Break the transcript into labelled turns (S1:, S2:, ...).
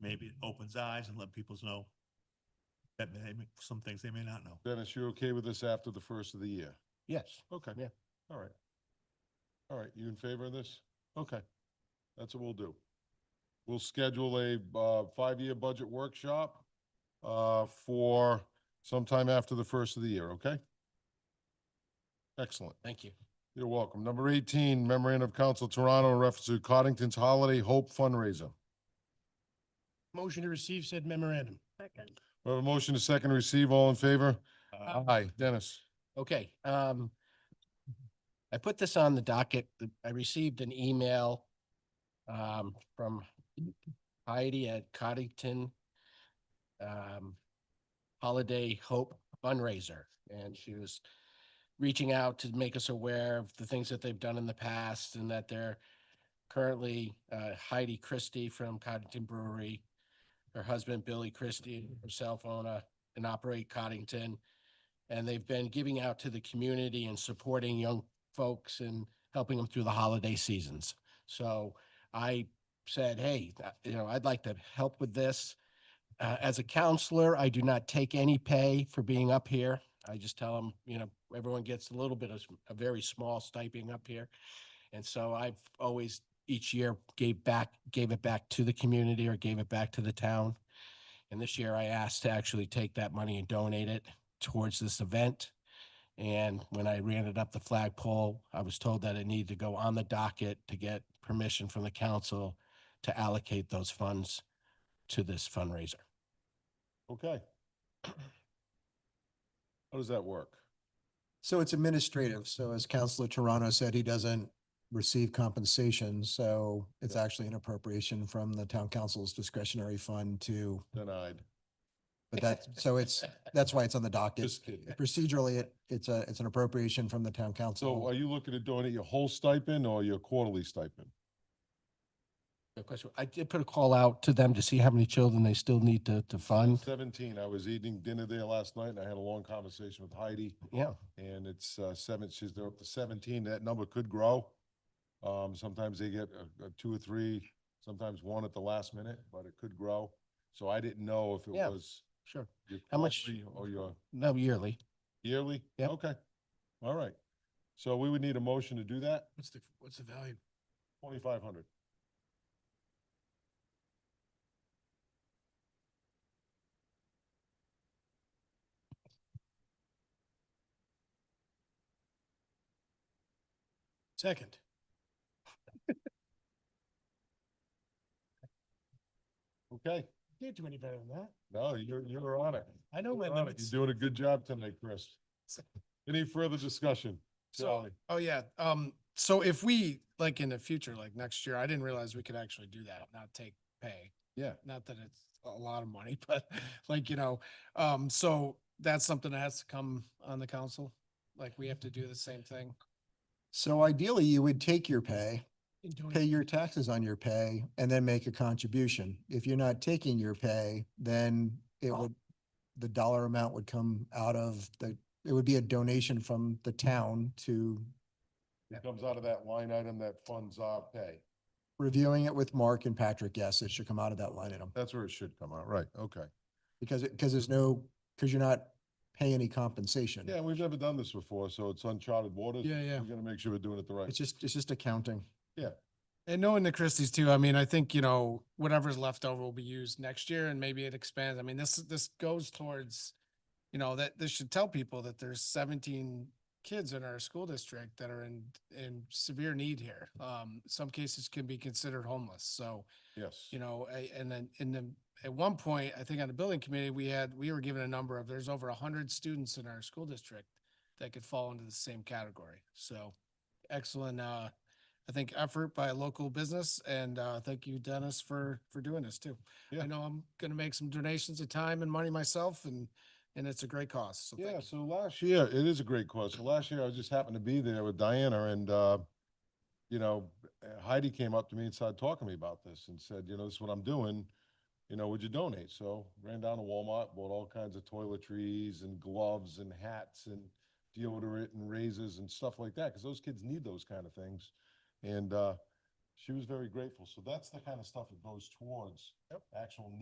S1: maybe it opens eyes and let people know that may, some things they may not know.
S2: Dennis, you're okay with this after the first of the year?
S3: Yes.
S2: Okay.
S3: Yeah.
S2: All right. All right, you in favor of this? Okay, that's what we'll do. We'll schedule a, uh, five-year budget workshop, uh, for sometime after the first of the year, okay? Excellent.
S3: Thank you.
S2: You're welcome. Number eighteen, memorandum of council Toronto in reference to Coddington's Holiday Hope fundraiser.
S3: Motion to receive said memorandum.
S4: Second.
S2: We have a motion to second receive. All in favor?
S1: Uh,
S2: Aye. Dennis?
S3: Okay, um, I put this on the docket. The- I received an email um, from Heidi at Coddington um, Holiday Hope fundraiser, and she was reaching out to make us aware of the things that they've done in the past and that they're currently uh, Heidi Christie from Coddington Brewery, her husband Billy Christie, herself own a uh, and operate Coddington and they've been giving out to the community and supporting young folks and helping them through the holiday seasons. So I said, hey, uh, you know, I'd like to help with this. Uh, as a counselor, I do not take any pay for being up here. I just tell them, you know, everyone gets a little bit of s- a very small stipend up here. And so I've always each year gave back, gave it back to the community or gave it back to the town. And this year I asked to actually take that money and donate it towards this event. And when I ran it up the flagpole, I was told that it needed to go on the docket to get permission from the council to allocate those funds to this fundraiser.
S2: Okay. How does that work?
S5: So it's administrative. So as Counselor Toronto said, he doesn't receive compensation. So it's actually an appropriation from the town council's discretionary fund to,
S2: Denied.
S5: but that's, so it's, that's why it's on the docket.
S2: Just kidding.
S5: Procedurally, it, it's a, it's an appropriation from the
S2: So are
S5: town council.
S2: you looking to donate your whole stipend or your quarterly stipend?
S3: Good question. I did put a call out to them to see how many children they still need to, to fund.
S2: Seventeen. I was eating dinner there last night and I had a long conversation with Heidi
S3: Yeah,
S2: and it's uh, seven, she's, they're up to seventeen. That number could grow. Um, sometimes they get uh, uh, two or three, sometimes one at the last minute, but it could grow. So I didn't know if it
S3: Yeah.
S2: was
S3: sure.
S2: your
S3: How much-
S2: quarterly or your
S3: No, yearly.
S2: yearly?
S3: Yep.
S2: Okay. All right. So we would need a motion to do that,
S3: What's the, what's the value?
S2: twenty-five hundred.
S3: Second.
S2: Okay.
S3: Can't do any better than that.
S2: No, you're, you're on it.
S3: I know
S2: You're on it. You're doing a good job tonight, Chris. Any further discussion?
S6: So,
S2: Charlie?
S6: oh yeah, um, so if we, like in the future, like next year, I didn't realize we could actually do that, not take pay.
S2: Yeah.
S6: Not that it's a lot of money, but like, you know, um, so that's something that has to come on the council? Like, we have to do the same thing?
S5: So ideally, you would take your pay,
S6: in doing-
S5: pay your taxes on your pay, and then make a contribution. If you're not taking your pay, then it would, the dollar amount would come out of the, it would be a donation from the town to
S2: It comes out of that line item that funds our pay.
S5: reviewing it with Mark and Patrick, yes, it should come out of that line item.
S2: That's where it should come out, right, okay.
S5: Because, it because there's no, because you're not paying any compensation.
S2: Yeah, we've never done this before, so it's uncharted waters.
S6: Yeah, yeah.
S2: We're gonna make sure we're doing it the right.
S5: It's just, it's just accounting.
S6: And knowing the Christie's too, I mean, I think, you know, whatever's left over will be used next year and maybe it expands. I mean, this, this goes towards, you know, that this should tell people that there's seventeen kids in our school district that are in, in severe need here. Um, some cases can be considered homeless. So,
S2: Yes.
S6: you know, a- and then in the, at one point, I think on the building committee, we had, we were given a number of, there's over a hundred students in our school district that could fall into the same category. So excellent, uh, I think effort by a local business and, uh, thank you Dennis for, for doing this too.
S2: Yeah.
S6: I know I'm gonna make some donations of time and money myself and, and it's a great cause. So thank
S2: Yeah,
S6: you.
S2: so last year, it is a great question. Last year, I just happened to be there with Diana and, uh, you know, Heidi came up to me and started talking to me about this and said, you know, this is what I'm doing. You know, would you donate? So ran down to Walmart, bought all kinds of toiletries and gloves and hats and deodorant and razors and stuff like that, because those kids need those kind of things. And, uh, she was very grateful. So that's the kind of stuff that goes towards actual